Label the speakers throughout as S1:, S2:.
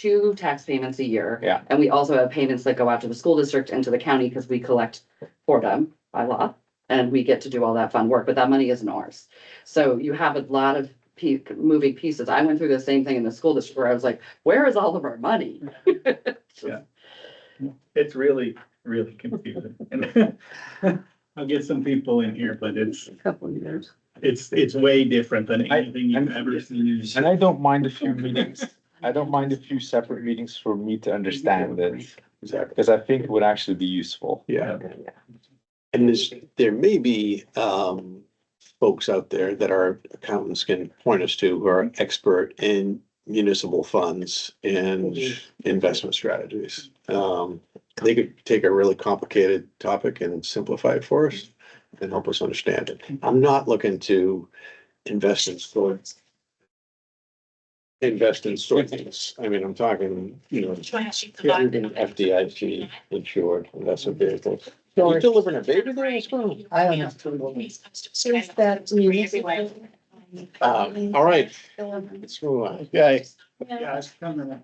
S1: two tax payments a year.
S2: Yeah.
S1: And we also have payments that go out to the school district and to the county because we collect for them by law. And we get to do all that fun work, but that money isn't ours. So you have a lot of pe- moving pieces. I went through the same thing in the school district where I was like, where is all of our money?
S3: Yeah. It's really, really confusing. And I'll get some people in here, but it's,
S1: Couple years.
S3: it's, it's way different than
S2: I-
S3: anything you've
S2: I'm-
S3: ever seen.
S2: And I don't mind a few meetings, I don't mind a few separate meetings for me to understand this,
S4: Exactly.
S2: because I think it would actually be useful.
S3: Yeah.
S4: And there's, there may be, um, folks out there that our accountants can point us to who are expert in municipal funds and investment strategies. Um, they could take a really complicated topic and simplify it for us and help us understand it. I'm not looking to invest in stores. Invest in sources. I mean, I'm talking, you know, FDIC insured, investment vehicles. Are you delivering a baby there as well?
S5: I don't know. There's that music.
S6: Uh,
S4: Um, all right. Let's move on. Okay,
S3: Yeah, it's coming up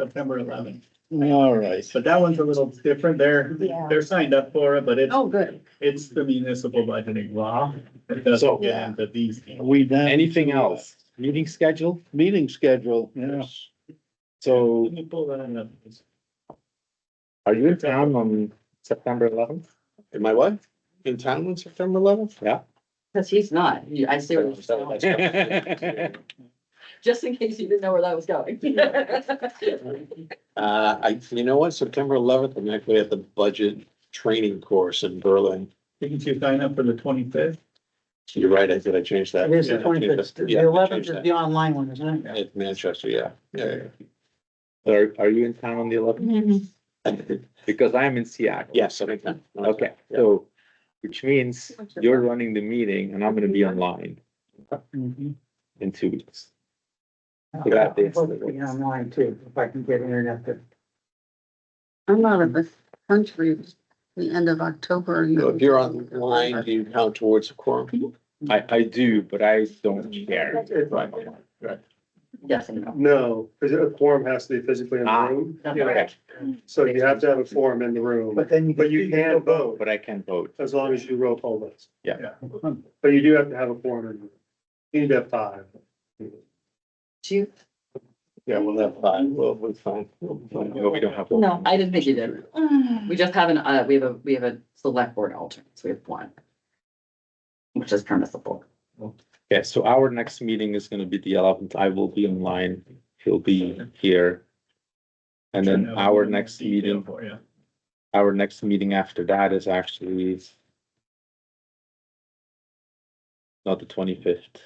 S3: September eleventh,
S4: all right.
S3: but that one's a little different. They're,
S5: Yeah.
S3: they're signed up for it, but it's,
S5: Oh, good.
S3: it's the municipal budgeting law. It doesn't get into these.
S6: Are We done.
S2: Anything else? Meeting schedule?
S6: Meeting schedule, yeah.
S2: So
S3: Let me pull that up.
S2: are you in town on September eleventh?
S4: Am I what? In town on September eleventh?
S1: Because he's not. You- I see where you're going. Just in case you didn't know where that was going.
S4: Uh, I, you know what, September eleventh, I'm actually at the budget training course in Berlin.
S3: Didn't you sign up for the twenty-fifth?
S4: You're right, I did, I changed that.
S6: It is the
S4: Yeah,
S6: twenty-fifth.
S4: yeah, I
S6: The eleventh
S4: changed
S6: is
S4: that.
S6: the online one, isn't it?
S4: At Manchester, yeah, yeah,
S2: Are, are you in town on the eleventh?
S4: yeah.
S2: Because I'm in Seattle.
S4: Yes, I think.
S2: Okay,
S4: Yeah.
S2: so, which means you're running the meeting and I'm gonna be online Mm-hmm.
S6: Mhm.
S2: in two weeks.
S6: I'll
S2: Forgot this.
S6: probably be Online too, if I can get internet to.
S7: I'm out of the country, the end of October. Hmm?
S4: So If you're online, do you count towards a quorum?
S2: I, I do, but I don't care.
S4: Right.
S1: Yes, I know.
S8: No, because a quorum has to be physically in the
S2: Ah.
S8: room,
S2: Okay,
S8: so you have to have a forum in the room,
S6: But then you.
S8: but you can vote
S2: But I can vote.
S8: as long as you roll poll votes.
S3: Yeah.
S8: But you do have to have a quorum in the room. You need to have five.
S1: Do you?
S4: Yeah, we'll have five, we'll, we'll find.
S2: No, we don't have. to.
S1: No, I didn't think you did.
S5: Mm-hmm.
S1: We just have an, uh, we have a, we have a select board alternate, so we have one. Which is permissible.
S2: Okay, so our next meeting is gonna be the eleventh. I will be online. He'll be here. And then our next meeting,
S3: For you.
S2: our next meeting after that is actually not the twenty-fifth.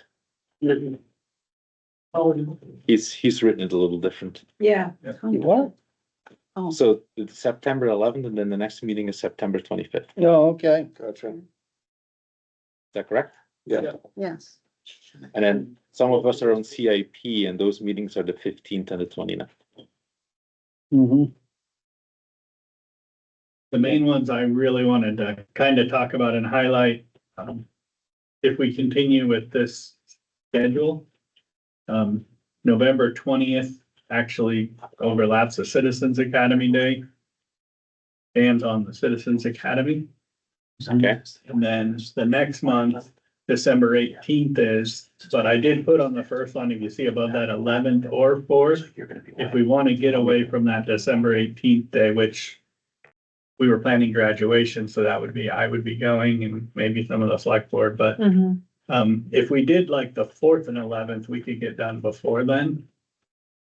S2: He's, he's written it a little different.
S5: Yeah.
S6: What?
S7: Oh.
S2: So it's September eleventh and then the next meeting is September twenty-fifth. Is
S6: No, okay.
S4: Gotcha.
S2: that correct?
S4: Yeah.
S7: Yes.
S2: And then some of us are on CIP and those meetings are the fifteenth and the 29th.
S6: Mm-hmm.
S3: The main ones I really wanted to kind of talk about and highlight, um, if we continue with this schedule. Um, November twentieth actually overlaps the Citizens Academy Day. Dan's on the Citizens Academy,
S2: Okay.
S3: and then the next month, December eighteenth is, but I did put on the first line, if you see above that eleventh or fourth. if we want to get away from that December eighteenth day, which we were planning graduation, so that would be, I would be going and maybe some of the select board, but um, if we did like the fourth and eleventh, we could get done before then.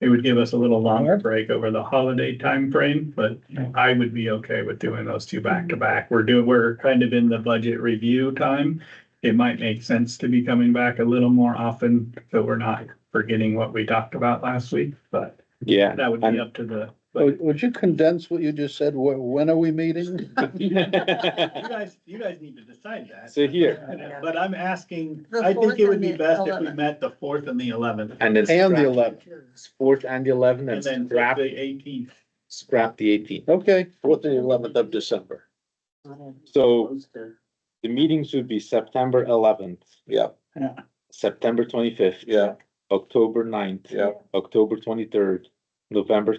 S3: It would give us a little longer break over the holiday time frame, but I would be okay with doing those two back to back. We're doing, we're kind of in the budget review time. It might make sense to be coming back a little more often, so we're not forgetting what we talked about last week, but
S2: Yeah.
S3: that would be up to the, but
S6: Would would you condense what you just said? Wh- When are we meeting?
S3: you guys, you guys need to decide that.
S2: So here.
S3: But I'm asking,
S7: The
S3: I think
S7: fourth
S3: it would
S7: and
S3: be
S7: the
S3: best if we
S7: 11th.
S3: met the fourth and the eleventh
S2: And
S6: And
S2: then.
S6: the
S2: scrap-
S6: eleventh,
S2: Fourth and the eleventh
S3: and
S2: and
S3: then
S2: scrap,
S3: the eighteenth.
S2: scrap the eighteenth.
S6: okay.
S4: Fourth and eleventh of December.
S2: So the meetings would be September eleventh,
S4: Yeah,
S2: September twenty-fifth,
S4: yeah,
S2: October 9th,
S4: yeah.
S2: October twenty-third, November